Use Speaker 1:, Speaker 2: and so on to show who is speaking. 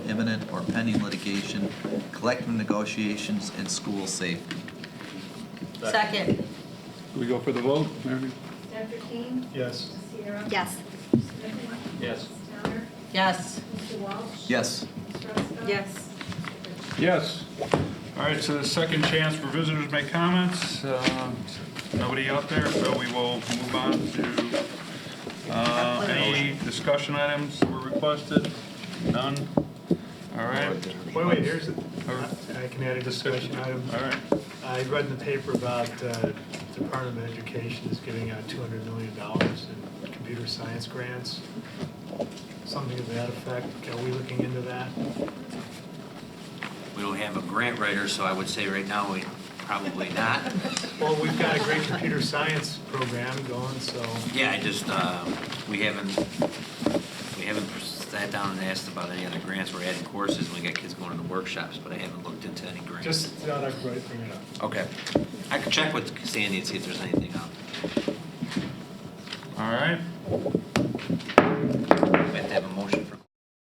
Speaker 1: imminent or pending litigation, collective negotiations, and school safety.
Speaker 2: Second.
Speaker 3: Do we go for the vote, Mary?
Speaker 4: Dr. King?
Speaker 5: Yes.
Speaker 4: Sierra?
Speaker 2: Yes.
Speaker 4: Mr. Smith?
Speaker 5: Yes.
Speaker 4: Mr. Towner?
Speaker 2: Yes.
Speaker 4: Mr. Walsh?
Speaker 1: Yes,
Speaker 4: Mr. Ruska?
Speaker 2: Yes.
Speaker 3: Yes.
Speaker 5: All right, so the second chance for visitors to make comments. Um, Nobody out there, so we will move on to uh, any discussion items that were requested. None? All right.
Speaker 6: Wait, wait, here's, a-
Speaker 5: All right.
Speaker 6: I can add a discussion item.
Speaker 5: All right.
Speaker 6: I read in the paper about uh, Department of Education is giving out $200 million in computer science grants, something to that effect. Are we looking into that?
Speaker 7: We don't have a grant writer, so I would say right now, we probably not.
Speaker 6: Well, we've got a great computer science program going, so
Speaker 7: Yeah, I just, uh, we haven't, we haven't sat down and asked about any other grants. We're adding courses, and we got kids going to the workshops, but I haven't looked into any grants.
Speaker 6: just thought I'd bring it up.
Speaker 7: Okay. I could check with Sandy and see if there's anything um, out
Speaker 5: All right.
Speaker 7: there. We have to have a motion